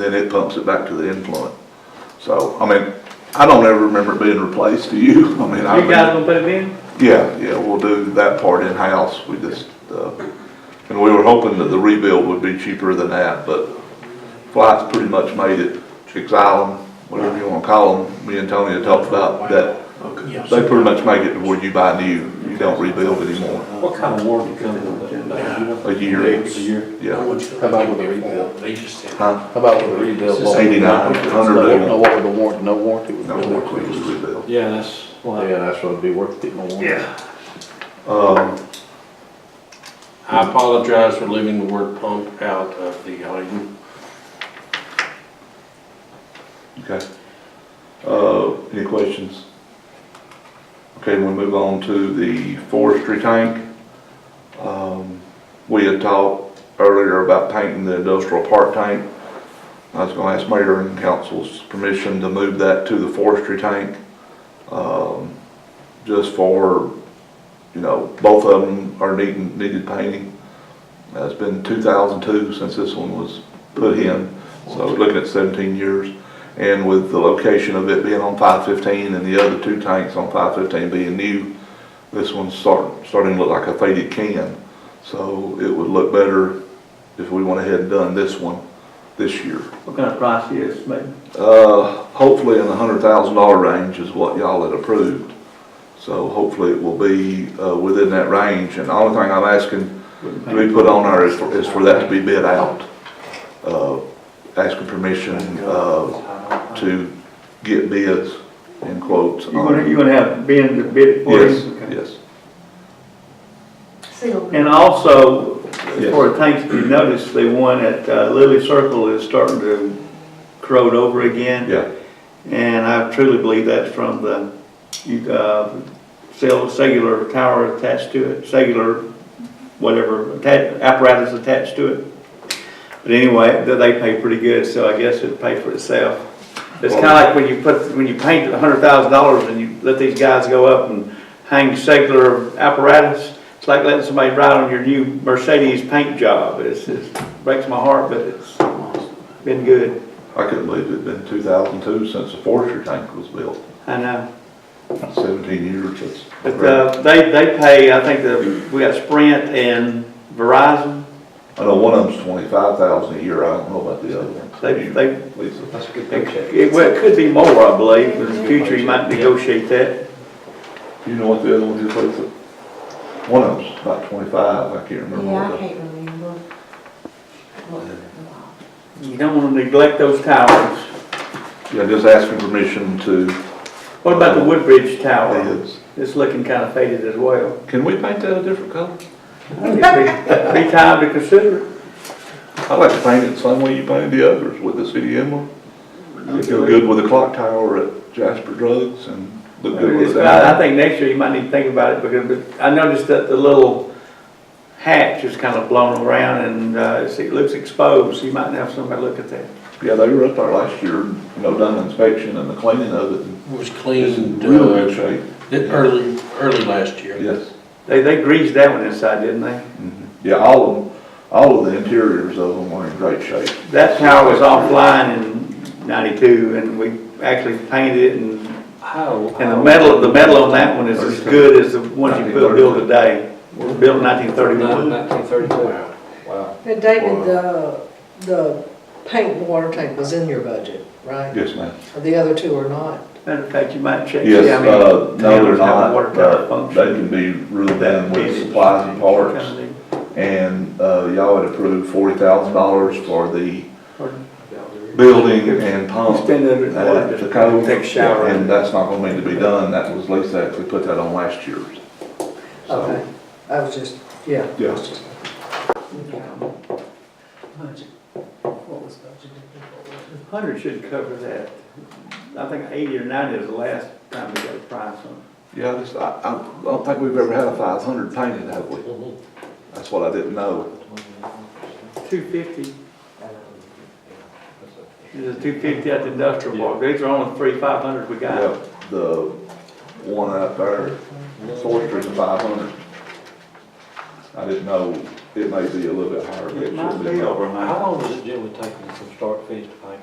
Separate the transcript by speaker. Speaker 1: then it pumps it back to the influent. So, I mean, I don't ever remember it being replaced, do you? I mean, I.
Speaker 2: You guys gonna put it in?
Speaker 1: Yeah, yeah, we'll do that part in-house, we just, uh, and we were hoping that the rebuild would be cheaper than that, but Flight's pretty much made it, Chicks Island, whatever you wanna call them, me and Tony had talked about that. They pretty much make it to where you buy new, you don't rebuild anymore,
Speaker 3: What kind of warranty comes with it?
Speaker 1: a year,
Speaker 3: A year?
Speaker 1: yeah.
Speaker 4: How about with a rebuild?
Speaker 5: They just said.
Speaker 1: Huh?
Speaker 4: How about with a rebuild?
Speaker 1: It's 89,
Speaker 4: No,
Speaker 1: 100.
Speaker 4: no, what with the warranty, no warranty with the
Speaker 1: No, we're quick
Speaker 4: rebuild?
Speaker 1: to rebuild.
Speaker 3: Yeah, that's why.
Speaker 4: Yeah, that's what it'd be worth getting a warranty.
Speaker 1: Um,
Speaker 5: I apologize for leaving the word pump out of the item.
Speaker 1: Okay. Uh, any questions? Okay, we move on to the forestry tank. Um, we had talked earlier about painting the industrial park tank. I was gonna ask mayor and council's permission to move that to the forestry tank. Um, just for, you know, both of them are needing, needed painting. Uh, It's been two thousand two since this one was put in, so we're looking at seventeen years. And with the location of it being on five fifteen and the other two tanks on five fifteen being new, this one's starting, starting to look like a faded can. So it would look better if we went ahead and done this one this year.
Speaker 2: What kind of price is, maybe?
Speaker 1: Uh, hopefully in the hundred thousand dollar range is what y'all had approved. So hopefully it will be, uh, within that range. And the only thing I'm asking to be put on there is, for- is for that to be bid out. Uh, asking permission, uh, to get bids and quotes.
Speaker 2: You're gonna,
Speaker 1: on-
Speaker 2: you're gonna have bids to bid it for
Speaker 1: Yes,
Speaker 2: us? Okay.
Speaker 1: yes.
Speaker 6: Seal.
Speaker 2: And also, as
Speaker 1: Yes.
Speaker 2: far as tanks, if you notice, the one at uh, Lily Circle is starting to corrode over again.
Speaker 1: Yeah,
Speaker 2: And I truly believe that's from the, you, uh, cell, cellular tower attached to it, cellular, whatever, atta- apparatus attached to it. But anyway, th- they pay pretty good, so I guess it'd pay for itself. It's kinda like when you put, when you paint a hundred thousand dollars and you let these guys go up and hang cellular apparatus, it's like letting somebody ride on your new Mercedes paint job. It's, it breaks my heart, but it's been good,
Speaker 1: I couldn't believe it'd been two thousand two since the forestry tank was built,
Speaker 2: I know.
Speaker 1: seventeen years, that's.
Speaker 2: But uh, they, they pay, I think the, we got Sprint and Verizon,
Speaker 1: I know one of them's twenty-five thousand a year, I don't know about the other one.
Speaker 2: they, they,
Speaker 1: Lisa.
Speaker 3: That's a good paycheck.
Speaker 2: it well, it could be more, I believe, but in the future, you might negotiate that.
Speaker 1: Do you know what the other one is, Lisa? One of them's about twenty-five, I can't remember.
Speaker 6: Yeah, I
Speaker 1: what the-
Speaker 6: can't remember. Look.
Speaker 2: You don't want to neglect those towers.
Speaker 1: Yeah, just asking permission to,
Speaker 2: What about the Woodbridge Tower?
Speaker 1: bids.
Speaker 2: It's looking kind of faded as well.
Speaker 1: can we paint that a different color?
Speaker 2: It'd Be be time to consider. it.
Speaker 1: I like to paint it the same way you painted the others, with the city emblem. It'd go good with the clock tower at Jasper Drugs and look good with
Speaker 2: It's-
Speaker 1: it.
Speaker 2: I I think next year you might need to think about it because but I noticed that the little hatch is kind of blown around and uh, it's- it looks exposed. You might have somebody look at that.
Speaker 1: Yeah, they were up there last year, you know, done the inspection and the cleaning of it. and
Speaker 5: It was
Speaker 1: It's in
Speaker 5: cleaned,
Speaker 1: real good
Speaker 5: uh,
Speaker 1: shape,
Speaker 5: early, early last year.
Speaker 1: yes.
Speaker 2: They, they greased that one inside, didn't they?
Speaker 1: Mhm. Yeah, all of them, all of the interiors of them were in great shape.
Speaker 2: That tower was offline in ninety-two and we actually painted it and,
Speaker 3: How?
Speaker 2: and the metal, the metal on that one is as good as the ones you built, build today. We're built nineteen thirty-one.
Speaker 3: Nineteen thirty-two.
Speaker 5: Wow.
Speaker 3: Wow.
Speaker 7: And David, the, the paint and water tank was in your budget, right?
Speaker 1: Yes, ma'am.
Speaker 7: The other two are not.
Speaker 2: Matter of fact, you might check. see
Speaker 1: Yes,
Speaker 2: how many
Speaker 1: uh, no, they're
Speaker 2: towers have a water
Speaker 1: not,
Speaker 2: tower
Speaker 1: but
Speaker 2: function.
Speaker 1: they can be ruled down with
Speaker 2: Vintage.
Speaker 1: supplies and parts.
Speaker 2: Kind of thing.
Speaker 1: And, uh, y'all had approved forty thousand dollars for the
Speaker 2: Or-
Speaker 1: building and
Speaker 2: You
Speaker 1: pump.
Speaker 2: stand there and
Speaker 1: at
Speaker 2: just
Speaker 1: Uh, the code,
Speaker 2: Take a shower.
Speaker 1: And uh, that's not gonna need to be done, that was Lisa actually put that on last year's. So-
Speaker 7: Okay, I was just, yeah. I
Speaker 1: Yeah.
Speaker 7: was just- okay. Budget. What was budgeted?
Speaker 2: Hundred should cover that. I think eighty or ninety is the last time we got a price on
Speaker 1: Yeah, this, I, I don't think we've ever had a five hundred painted, have we? That's what I didn't know.
Speaker 2: it. Two fifty. There's a two fifty at the industrial park. These are only three five hundred we got.
Speaker 1: Yeah, The one out there, Forestry's a five hundred. I didn't know it may be a little bit higher. but
Speaker 3: It
Speaker 1: should
Speaker 3: might be
Speaker 1: over
Speaker 3: How long does it generally take them from start finish to paint?